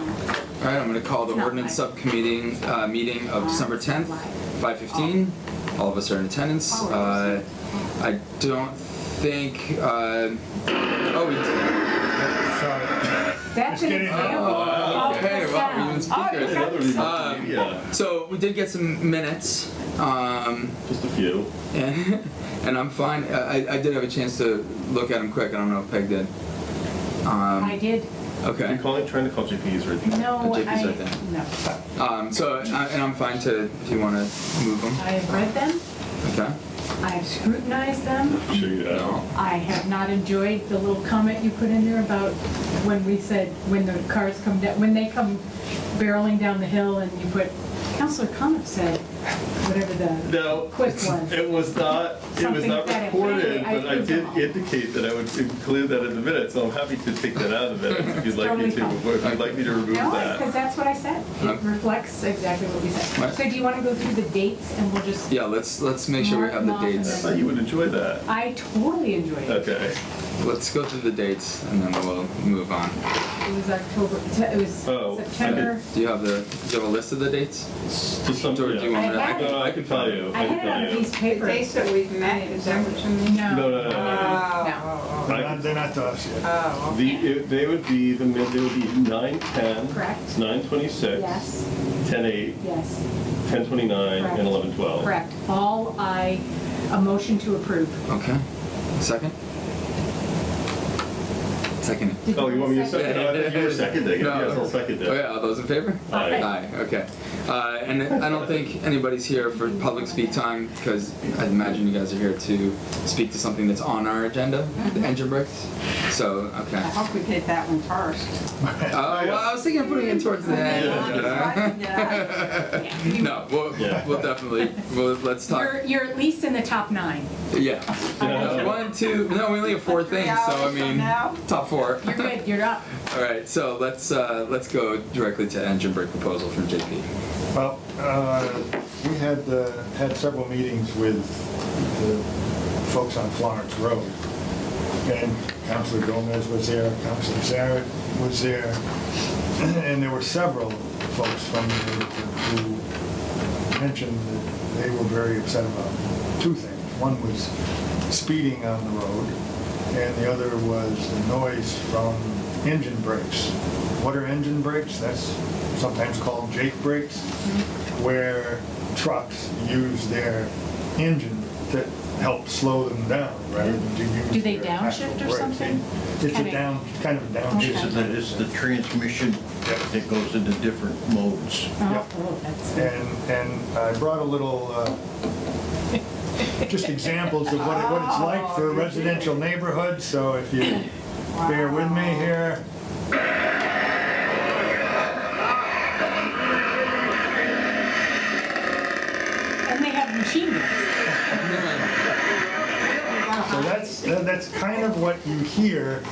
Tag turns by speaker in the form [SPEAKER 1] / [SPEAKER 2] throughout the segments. [SPEAKER 1] All right, I'm going to call the
[SPEAKER 2] It's not
[SPEAKER 1] ordinance
[SPEAKER 2] live.
[SPEAKER 1] subcommittee, uh, meeting of December 10th,
[SPEAKER 2] Live.
[SPEAKER 1] 5:15. All of us are in attendance.
[SPEAKER 2] All of
[SPEAKER 1] Uh,
[SPEAKER 2] us.
[SPEAKER 1] I don't think, uh, oh, we did.
[SPEAKER 2] That's an
[SPEAKER 3] Just kidding.
[SPEAKER 2] example
[SPEAKER 1] Oh,
[SPEAKER 2] of
[SPEAKER 1] okay,
[SPEAKER 2] the
[SPEAKER 1] well, we
[SPEAKER 2] sound.
[SPEAKER 1] didn't
[SPEAKER 2] Oh,
[SPEAKER 1] speak
[SPEAKER 2] you got
[SPEAKER 1] good.
[SPEAKER 2] the sound.
[SPEAKER 1] Um,
[SPEAKER 4] Yeah,
[SPEAKER 1] So we did get some minutes, um,
[SPEAKER 4] just a few.
[SPEAKER 1] and, and I'm fine. Uh, I, I- I did have a chance to look at them quick. I don't know if Peg did.
[SPEAKER 2] I
[SPEAKER 1] Um,
[SPEAKER 2] did,
[SPEAKER 4] Are
[SPEAKER 1] okay.
[SPEAKER 4] you calling, trying to call JP's right now?
[SPEAKER 2] no,
[SPEAKER 1] The JP's
[SPEAKER 2] I,
[SPEAKER 1] right there.
[SPEAKER 2] no.
[SPEAKER 1] Um, so, I- and I'm fine to, if you want to move them.
[SPEAKER 2] I have read them,
[SPEAKER 1] Okay?
[SPEAKER 2] I have scrutinized them,
[SPEAKER 4] Sure you have.
[SPEAKER 1] No.
[SPEAKER 2] I have not enjoyed the little comment you put in there about when we said, when the cars come down, when they come barreling down the hill and you put, Counselor Coniff said, whatever the,
[SPEAKER 4] No.
[SPEAKER 2] Quick one.
[SPEAKER 4] It was not, it was
[SPEAKER 2] Something
[SPEAKER 4] not
[SPEAKER 2] that-
[SPEAKER 4] recorded,
[SPEAKER 2] I- I-
[SPEAKER 4] but I did indicate that I would include that in the minutes, so I'm happy to take that out of the minutes if you'd like
[SPEAKER 2] Totally
[SPEAKER 4] me to,
[SPEAKER 2] fine.
[SPEAKER 4] if you'd like me to remove
[SPEAKER 2] no, because
[SPEAKER 4] that.
[SPEAKER 2] that's what I said. It
[SPEAKER 1] Okay.
[SPEAKER 2] reflects exactly what we said.
[SPEAKER 1] Right.
[SPEAKER 2] So do you want to go through the dates and we'll just,
[SPEAKER 1] Yeah, let's, let's make sure we have the
[SPEAKER 2] Mark them
[SPEAKER 4] I
[SPEAKER 1] dates.
[SPEAKER 2] off.
[SPEAKER 4] thought you would enjoy that.
[SPEAKER 2] I totally enjoyed it.
[SPEAKER 4] Okay.
[SPEAKER 1] Let's go through the dates and then we'll move on.
[SPEAKER 2] It was October, it was
[SPEAKER 4] Oh, I did-
[SPEAKER 2] September.
[SPEAKER 1] Do you have the, do you have a list of the dates?
[SPEAKER 4] To some,
[SPEAKER 1] Or do you
[SPEAKER 4] yeah.
[SPEAKER 1] want me to?
[SPEAKER 2] I have it.
[SPEAKER 4] No, I can tell you.
[SPEAKER 2] I had
[SPEAKER 4] can
[SPEAKER 2] it on a
[SPEAKER 4] tell you.
[SPEAKER 2] piece of paper.
[SPEAKER 5] They said we've met, is that what you mean?
[SPEAKER 2] No.
[SPEAKER 4] No, no, no, no, no.
[SPEAKER 5] Oh,
[SPEAKER 3] They're not- they're not to us yet.
[SPEAKER 5] oh,
[SPEAKER 4] The, it- they would be, the, mid- they would be nine ten.
[SPEAKER 2] Correct.
[SPEAKER 4] Nine twenty-six.
[SPEAKER 2] Yes,
[SPEAKER 4] Ten eight,
[SPEAKER 2] yes,
[SPEAKER 4] ten twenty-nine,
[SPEAKER 2] Correct.
[SPEAKER 4] and eleven twelve.
[SPEAKER 2] correct. All I, a motion to approve.
[SPEAKER 1] Okay, second? Second.
[SPEAKER 2] Did
[SPEAKER 4] Oh, you want me to
[SPEAKER 2] say-
[SPEAKER 4] second? No, I think you were seconding. it.
[SPEAKER 1] No.
[SPEAKER 4] Yes, I'll second
[SPEAKER 1] Oh
[SPEAKER 4] it.
[SPEAKER 1] yeah, all those in favor?
[SPEAKER 4] Aye.
[SPEAKER 1] Aye, okay. Uh, and I don't think anybody's here for public speak time because I imagine you guys are here to speak to something that's on our agenda, the engine bricks. So,
[SPEAKER 5] I
[SPEAKER 1] okay.
[SPEAKER 5] hope we hit that one first.
[SPEAKER 1] Uh, well, I was thinking of putting it towards the end. you know?
[SPEAKER 5] Yeah.
[SPEAKER 2] Yeah.
[SPEAKER 1] No, we'll,
[SPEAKER 4] Yeah.
[SPEAKER 1] we'll definitely, we'll, let's talk.
[SPEAKER 2] You're, you're at least in the top nine.
[SPEAKER 1] Yeah. Uh,
[SPEAKER 4] Yeah.
[SPEAKER 1] One, two, no, we only have four
[SPEAKER 5] Three
[SPEAKER 1] things, so I
[SPEAKER 5] hours from
[SPEAKER 1] mean,
[SPEAKER 5] now?
[SPEAKER 1] top four.
[SPEAKER 2] You're good, you're up.
[SPEAKER 1] All right, so let's, uh, let's go directly to engine brake proposal from JP.
[SPEAKER 3] Well, uh, we had, uh, had several meetings with the folks on Florence Road. And Councilor Gomez was there, Councilor Zaret was there, and there were several folks from, the- who mentioned that they were very upset about two things. One was speeding on the road, and the other was the noise from engine brakes. What are engine brakes? That's sometimes called Jake brakes, where trucks use their engine to help slow them down rather than to use.
[SPEAKER 2] Do they
[SPEAKER 3] their actual
[SPEAKER 2] downshift or
[SPEAKER 3] brakes.
[SPEAKER 2] something?
[SPEAKER 3] It's
[SPEAKER 2] Kinda-
[SPEAKER 3] a down, kind of a
[SPEAKER 2] Okay.
[SPEAKER 3] downshift.
[SPEAKER 6] It's the, it's the transmission that goes into different modes.
[SPEAKER 3] Yeah.
[SPEAKER 2] Oh, oh, that's,
[SPEAKER 3] And, and I brought a little, uh, just examples of what it, what it's like for a residential neighborhood, so if you bear with me here.
[SPEAKER 2] and they have machine guns.
[SPEAKER 3] So that's, that- that's kind of what you hear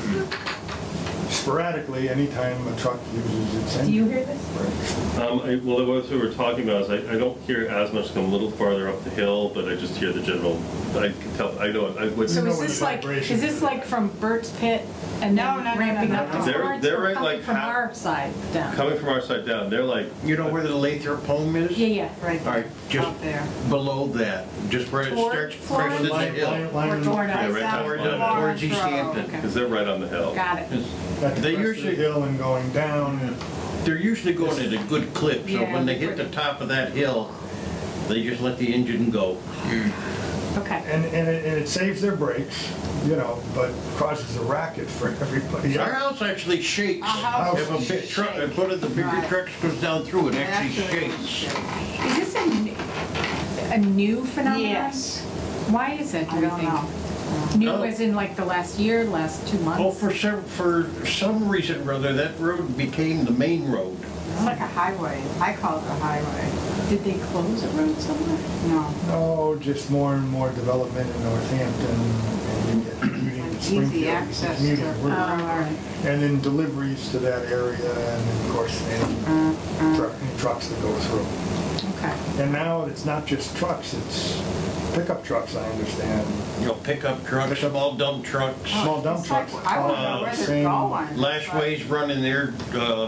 [SPEAKER 3] sporadically anytime a truck uses its
[SPEAKER 2] Do you
[SPEAKER 3] engine.
[SPEAKER 2] hear this?
[SPEAKER 4] Um, I, well, what we were talking about is I, I don't hear as much, 'cause I'm a little farther up the hill, but I just hear the general, I can tell, I know, I would,
[SPEAKER 2] So
[SPEAKER 3] know
[SPEAKER 2] is
[SPEAKER 3] what
[SPEAKER 2] this
[SPEAKER 3] the
[SPEAKER 2] like,
[SPEAKER 3] vibration
[SPEAKER 2] is this
[SPEAKER 3] is.
[SPEAKER 2] like from Burt's Pit and
[SPEAKER 5] No,
[SPEAKER 2] then
[SPEAKER 5] no, no,
[SPEAKER 2] ramping
[SPEAKER 5] no,
[SPEAKER 2] up
[SPEAKER 5] no.
[SPEAKER 2] to
[SPEAKER 4] They're-
[SPEAKER 2] Florence?
[SPEAKER 4] they're
[SPEAKER 2] or
[SPEAKER 4] right,
[SPEAKER 2] coming
[SPEAKER 4] like,
[SPEAKER 2] From
[SPEAKER 4] half-
[SPEAKER 2] our side down.
[SPEAKER 4] coming from our side down, they're like,
[SPEAKER 6] You know where the Lathrop home is?
[SPEAKER 2] Yeah, yeah.
[SPEAKER 5] Right
[SPEAKER 6] All right, just
[SPEAKER 5] out there.
[SPEAKER 6] below that, just where it
[SPEAKER 2] Toward
[SPEAKER 6] starts
[SPEAKER 2] Florence?
[SPEAKER 6] crashing the
[SPEAKER 3] Line-
[SPEAKER 6] hill.
[SPEAKER 3] line- line
[SPEAKER 2] Or
[SPEAKER 3] in the-
[SPEAKER 2] Florida.
[SPEAKER 4] Yeah, right down
[SPEAKER 5] South
[SPEAKER 4] the
[SPEAKER 6] uh,
[SPEAKER 4] line.
[SPEAKER 5] Florence
[SPEAKER 6] Towards East
[SPEAKER 5] Road,
[SPEAKER 6] Hampton.
[SPEAKER 5] okay.
[SPEAKER 4] because they're right on the hill.
[SPEAKER 2] Got it.
[SPEAKER 3] At the
[SPEAKER 6] They
[SPEAKER 3] crest of the
[SPEAKER 6] usually-
[SPEAKER 3] hill and going down.
[SPEAKER 6] They're usually going at a good clip, so
[SPEAKER 2] Yeah.
[SPEAKER 6] when they hit the top of that hill, they just let the engine go.
[SPEAKER 2] Okay.
[SPEAKER 3] And, and it, and it saves their brakes, you know, but causes a racket for everybody.
[SPEAKER 6] Our house actually shakes.
[SPEAKER 5] Our house
[SPEAKER 6] If a big truck, if one of the bigger
[SPEAKER 5] Uh-huh. Right.
[SPEAKER 6] trucks goes down through, it actually shakes.
[SPEAKER 2] Is this a, n- a new phenomenon?
[SPEAKER 5] Yes.
[SPEAKER 2] Why is it, do
[SPEAKER 5] I
[SPEAKER 2] you
[SPEAKER 5] don't
[SPEAKER 2] think?
[SPEAKER 5] know.
[SPEAKER 2] New
[SPEAKER 6] Oh.
[SPEAKER 2] as in like the last year, last two
[SPEAKER 6] Well,
[SPEAKER 2] months?
[SPEAKER 6] for some, for some reason or other, that road became the main road.
[SPEAKER 5] It's like a highway. I call it a highway.
[SPEAKER 2] Did they close a road somewhere?
[SPEAKER 5] No.
[SPEAKER 3] No, just more and more development in Northampton and you get commuting to
[SPEAKER 5] Easy
[SPEAKER 3] Springfield,
[SPEAKER 5] access
[SPEAKER 3] commuting
[SPEAKER 5] to-
[SPEAKER 3] work,
[SPEAKER 2] Oh, all right.
[SPEAKER 3] And then deliveries to that area and then, of course, any
[SPEAKER 5] Uh-huh.
[SPEAKER 3] truck, any trucks that go through.
[SPEAKER 2] Okay.
[SPEAKER 3] And now it's not just trucks, it's pickup trucks, I understand.
[SPEAKER 6] You know, pickup trucks, small dump trucks.
[SPEAKER 3] Small dump
[SPEAKER 5] Oh, It's like,
[SPEAKER 3] trucks.
[SPEAKER 5] I
[SPEAKER 3] all
[SPEAKER 5] don't know where they're
[SPEAKER 3] same-
[SPEAKER 5] going.
[SPEAKER 6] Lashway's running their, uh,